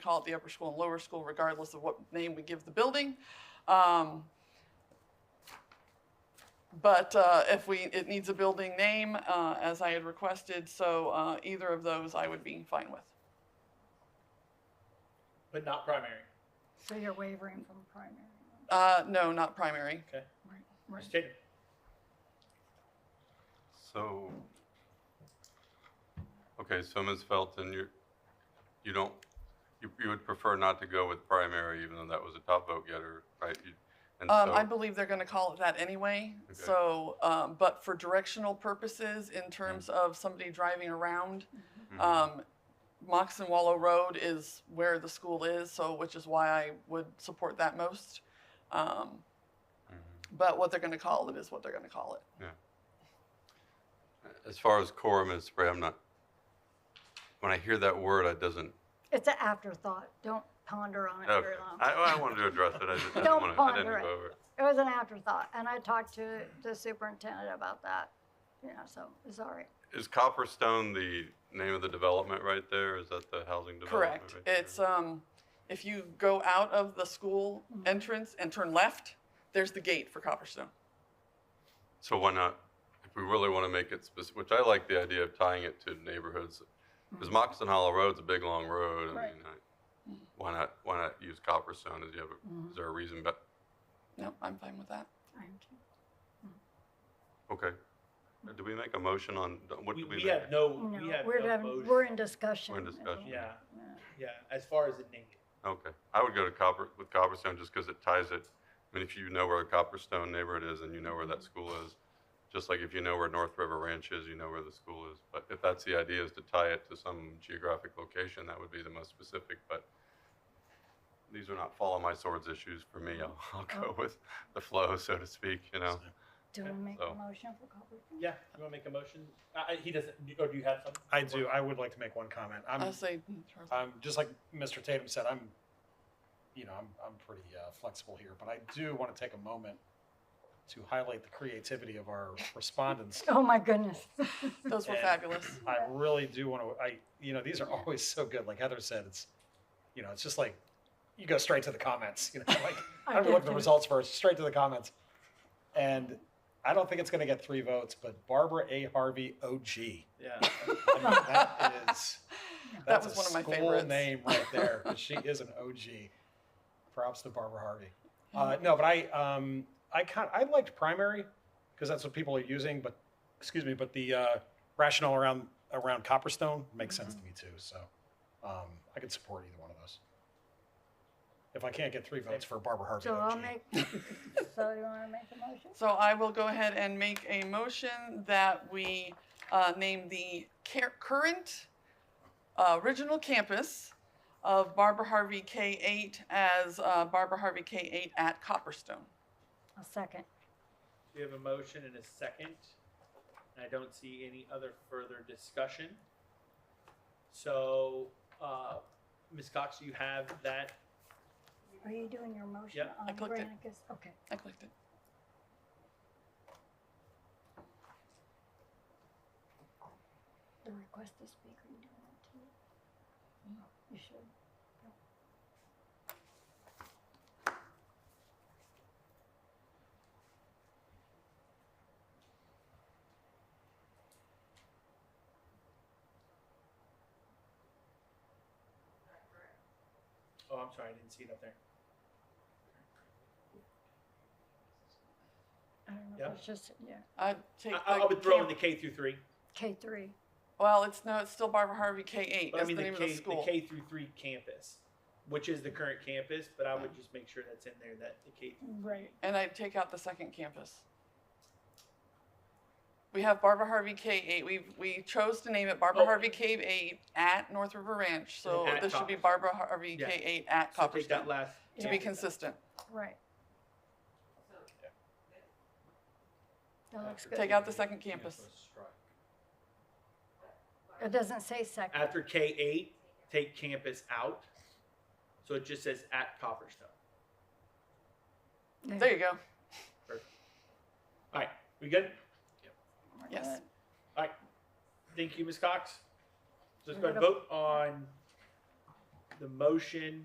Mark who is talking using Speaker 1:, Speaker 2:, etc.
Speaker 1: call it the upper school and lower school, regardless of what name we give the building. Um, But uh, if we, it needs a building name, uh, as I had requested, so uh, either of those I would be fine with.
Speaker 2: But not primary.
Speaker 3: So you're wavering from primary.
Speaker 1: Uh, No, not primary.
Speaker 2: Okay.
Speaker 3: Right,
Speaker 2: Ms.
Speaker 3: right.
Speaker 2: Tatum,
Speaker 4: So, okay, so Ms. Felton, you, you don't, you, you would prefer not to go with primary, even though that was a top vote getter, right? You- And
Speaker 1: Um, I
Speaker 4: so,
Speaker 1: believe they're going to call it that anyway.
Speaker 4: Okay.
Speaker 1: So, um, but for directional purposes, in terms
Speaker 4: Mm.
Speaker 1: of somebody driving around,
Speaker 4: Mhm.
Speaker 1: um, Moxon Wallow Road is where the school is, so which is why I would support that most. Um,
Speaker 4: Mhm.
Speaker 1: but what they're going to call it is what they're going to call it.
Speaker 4: as far as quorum is, Spray, I'm not, when I hear that word, I doesn't,
Speaker 3: It's an afterthought. Don't ponder on it very
Speaker 4: okay. I,
Speaker 3: long.
Speaker 4: I wanted to address it, I just didn't
Speaker 3: Don't
Speaker 4: want to, I
Speaker 3: ponder
Speaker 4: didn't
Speaker 3: it.
Speaker 4: go over it.
Speaker 3: It was an afterthought, and I talked to the superintendent about that, you know, so it's all right.
Speaker 4: Is Copperstone the name of the development right there? Is that the housing development?
Speaker 1: Correct.
Speaker 4: right there?
Speaker 1: It's um, if you go out of the school
Speaker 3: Mhm.
Speaker 1: entrance and turn left, there's the gate for Copperstone.
Speaker 4: So why not, if we really want to make it specific, which I like the idea of tying it to neighborhoods, because Moxon Hollow Road's a big, long road. I
Speaker 3: Right.
Speaker 4: mean, I- why not, why not use Copperstone? Is you have, a- is there a reason, but,
Speaker 1: No, I'm fine with that.
Speaker 4: okay. Did we make a motion on, what
Speaker 2: we,
Speaker 4: did we
Speaker 2: we
Speaker 4: make?
Speaker 2: have no,
Speaker 3: No,
Speaker 2: we have
Speaker 3: we're,
Speaker 2: no
Speaker 3: done-
Speaker 2: motion.
Speaker 3: we're in discussion.
Speaker 4: We're in
Speaker 3: I think.
Speaker 4: discussion.
Speaker 2: Yeah,
Speaker 3: Yeah.
Speaker 2: yeah, as far as the name.
Speaker 4: Okay, I would go to Copper, with Copperstone just because it ties it, I mean, if you know where the Copperstone neighborhood is and you know where that school is, just like if you know where North River Ranch is, you know where the school is. But if that's the idea is to tie it to some geographic location, that would be the most specific, but these are not follow my swords issues for me. I'll, I'll go with the flow, so to speak, you know?
Speaker 3: Do we make
Speaker 4: So-
Speaker 3: a motion for Copper?
Speaker 2: Yeah, you want to make a motion? Uh, he doesn't, or do you have something?
Speaker 5: I do. I would like to make one comment.
Speaker 1: I'll
Speaker 5: I'm,
Speaker 1: say, mm,
Speaker 5: I'm just like Mr. Tatum said. I'm, you know, I'm, I'm pretty uh, flexible here, but I do want to take a moment to highlight the creativity of our respondents.
Speaker 3: Oh, my goodness.
Speaker 1: those were
Speaker 5: And-
Speaker 1: fabulous.
Speaker 5: I really do want to. I, you know, these are always so good. Like Heather said, it's, you know, it's just like you go straight to the comments. You know, like I don't know what the results first, straight to the comments, and. I don't think it's going to get three votes, but Barbara A. Harvey OG.
Speaker 2: Yeah.
Speaker 5: I mean, that is
Speaker 1: That
Speaker 5: that's
Speaker 1: was
Speaker 5: a
Speaker 1: one of my
Speaker 5: school
Speaker 1: favorites.
Speaker 5: name right there. 'cause she is an OG. Props to Barbara Harvey. Uh, no, but I um, I kind I liked primary because that's what people are using. But excuse me, but the uh, rationale around around Copperstone makes sense to me too. So um, I could support either one of those. If I can't get three votes for Barbara Harvey,
Speaker 3: So I'll
Speaker 5: OG.
Speaker 3: make, so you want to make a motion?
Speaker 1: So I will go ahead and make a motion that we uh, name the car- current uh, original campus of Barbara Harvey K8 as uh, Barbara Harvey K8 at Copperstone.
Speaker 3: A second.
Speaker 2: We have a motion and a second. And I don't see any other further discussion. So, uh, Ms. Cox, you have that?
Speaker 3: Are you doing your motion
Speaker 2: Yeah.
Speaker 1: I
Speaker 3: on
Speaker 1: clicked it.
Speaker 3: Granicus? Okay.
Speaker 1: I clicked it.
Speaker 3: The request to speak, are you doing that too? You should.
Speaker 2: Oh, I'm sorry, I didn't see it up there.
Speaker 3: I don't know,
Speaker 2: Yeah.
Speaker 3: if it's just, yeah,
Speaker 1: I take
Speaker 2: I, I
Speaker 1: the
Speaker 2: would throw in
Speaker 1: camp-
Speaker 2: the K through three.
Speaker 3: K three.
Speaker 1: Well, it's no, it's still Barbara Harvey K8.
Speaker 2: But I
Speaker 1: That's
Speaker 2: mean,
Speaker 1: the
Speaker 2: the
Speaker 1: name
Speaker 2: K,
Speaker 1: of the
Speaker 2: the
Speaker 1: school.
Speaker 2: K through three campus, which is the current campus, but I would just make sure that's in there, that the K.
Speaker 3: Right.
Speaker 1: And I take out the second campus. We have Barbara Harvey K8. We we chose to name it Barbara
Speaker 2: Oh.
Speaker 1: Harvey K8 at North River Ranch. So
Speaker 2: at
Speaker 1: this should be
Speaker 2: Copperstone.
Speaker 1: Barbara Harvey
Speaker 2: Yeah.
Speaker 1: K8 at
Speaker 2: So take that
Speaker 1: Copperstone
Speaker 2: last.
Speaker 1: to be consistent.
Speaker 3: Right. That looks good.
Speaker 1: Oh, Take out the second campus.
Speaker 3: It doesn't say
Speaker 1: Uh,
Speaker 3: second.
Speaker 2: After K eight, take campus out. So it just says at Copperstone.
Speaker 3: Yeah,
Speaker 1: There you go.
Speaker 2: All right, we good?
Speaker 3: we're
Speaker 1: Yes.
Speaker 3: good.
Speaker 2: All right. Thank you, Ms. Cox. So Let's go ahead and vote on the motion